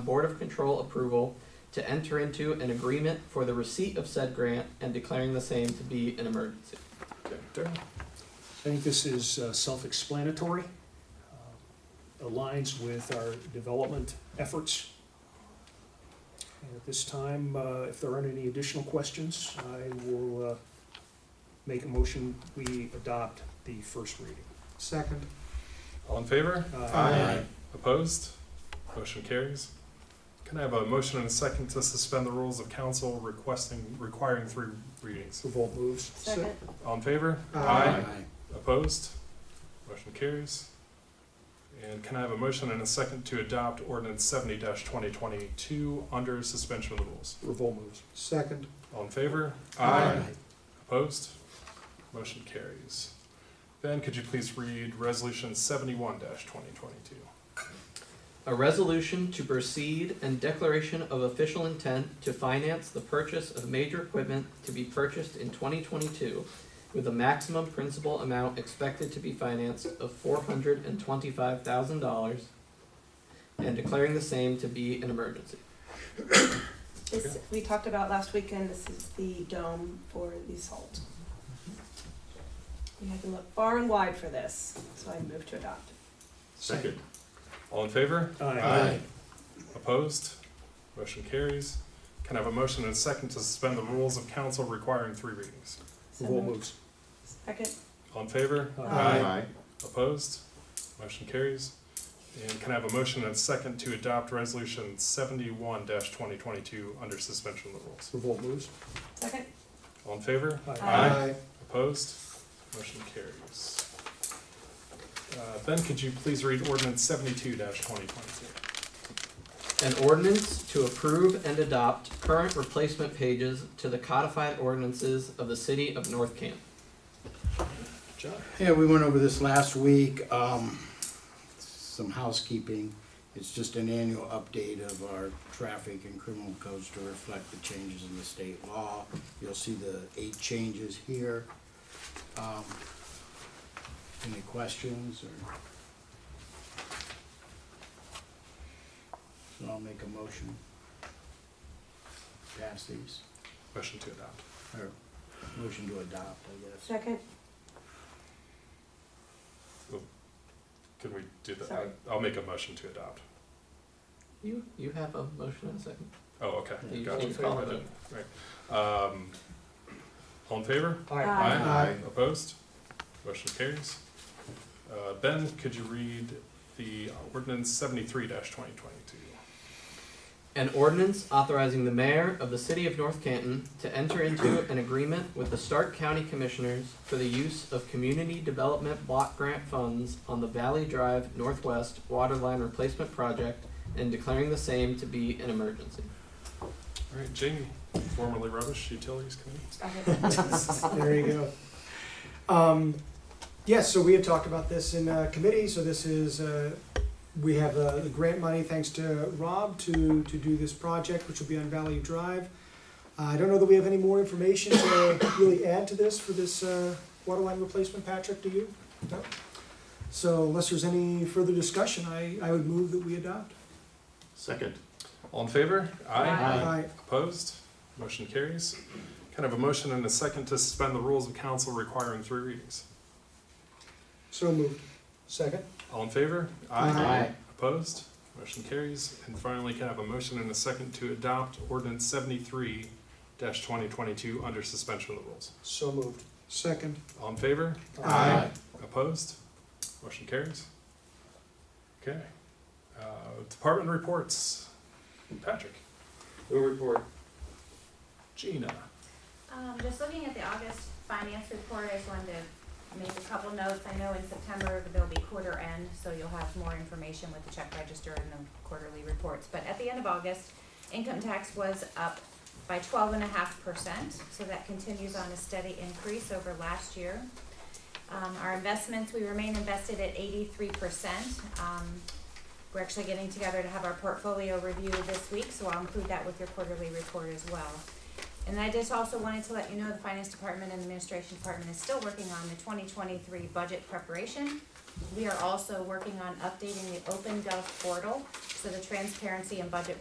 Board of Control approval to enter into an agreement for the receipt of said grant and declaring the same to be an emergency. I think this is uh, self-explanatory, uh, aligns with our development efforts. And at this time, uh, if there aren't any additional questions, I will uh, make a motion, we adopt the first reading. Uh, Second. All in favor? Aye. Opposed? Motion carries. Can I have a motion and a second to suspend the rules of council requesting, requiring three readings? Revolt moves. Second. All in favor? Aye. Opposed? Motion carries. And can I have a motion and a second to adopt ordinance seventy twenty twenty-two under suspension of the rules? Revolt moves. Second. All in favor? Aye. Opposed? Motion carries. Ben, could you please read resolution seventy-one twenty twenty-two? A resolution to proceed and declaration of official intent to finance the purchase of major equipment to be purchased in twenty twenty-two with a maximum principal amount expected to be financed of four hundred and twenty-five thousand dollars and declaring the same to be an emergency. This, we talked about last weekend, this is the dome for the salt. We had to look far and wide for this, so I moved to adopt. Second. All in favor? Aye. Opposed? Motion carries. Can I have a motion and a second to suspend the rules of council requiring three readings? So Revolt moved. moves. Second, All in favor? Aye. Opposed? Motion carries. And can I have a motion and a second to adopt resolution seventy-one twenty twenty-two under suspension of the rules? Revolt moves. second, All in favor? Aye. Aye. Opposed? Motion carries. Uh, Ben, could you please read ordinance seventy-two twenty twenty-two? An ordinance to approve and adopt current replacement pages to the codified ordinances of the city of North Canton. John? Yeah, we went over this last week, um, some housekeeping. It's just an annual update of our traffic and criminal codes to reflect the changes in the state law. You'll see the eight changes here. Um, any questions or? So I'll make a motion. Pass these, Motion to adopt. or motion to adopt, I guess. second, Can we do that? Sorry. I'll make a motion to adopt. You, you have a motion and a second. Oh, okay. Yeah, you Gotcha. can call it in. Right. Um, all in favor? Aye. Aye. Opposed? Motion carries. Uh, ben, could you read the ordinance seventy-three twenty twenty-two? An ordinance authorizing the mayor of the city of North Canton to enter into an agreement with the Stark County Commissioners for the use of community development block grant funds on the Valley Drive Northwest Waterline Replacement Project and declaring the same to be an emergency. All right, Jamie, formerly rubbish utilities committee. second, There you go. Um, yes, so we had talked about this in uh, committee, so this is, uh, we have uh, the grant money, thanks to Rob, to, to do this project, which will be on Valley Drive. Uh, I don't know that we have any more information to really add to this for this uh, water line replacement, Patrick, do you? No. So unless there's any further discussion, I, I would move that we adopt. Second. All in favor? Aye. Aye. Opposed? Motion carries. Kind of a motion and a second to suspend the rules of council requiring three readings. So moved. Second? All in favor? Aye. Opposed? Motion carries. And finally, can I have a motion and a second to adopt ordinance seventy-three twenty twenty-two under suspension of the rules? So moved. Second. All in favor? Aye. Opposed? Motion carries. Okay. Uh, Department reports. Patrick, Move report. Gina, Um, just looking at the August finance report, I just wanted to make a couple notes. I know in September there'll be quarter end, so you'll have more information with the check register and the quarterly reports. But at the end of August, income tax was up by twelve and a half percent, so that continues on a steady increase over last year. Um, our investments, we remain invested at eighty-three percent. Um, we're actually getting together to have our portfolio review this week, so I'll include that with your quarterly report as well. And I just also wanted to let you know the finance department and administration department is still working on the twenty twenty-three budget preparation. we are also working on updating the Open Gov portal, so the transparency and budget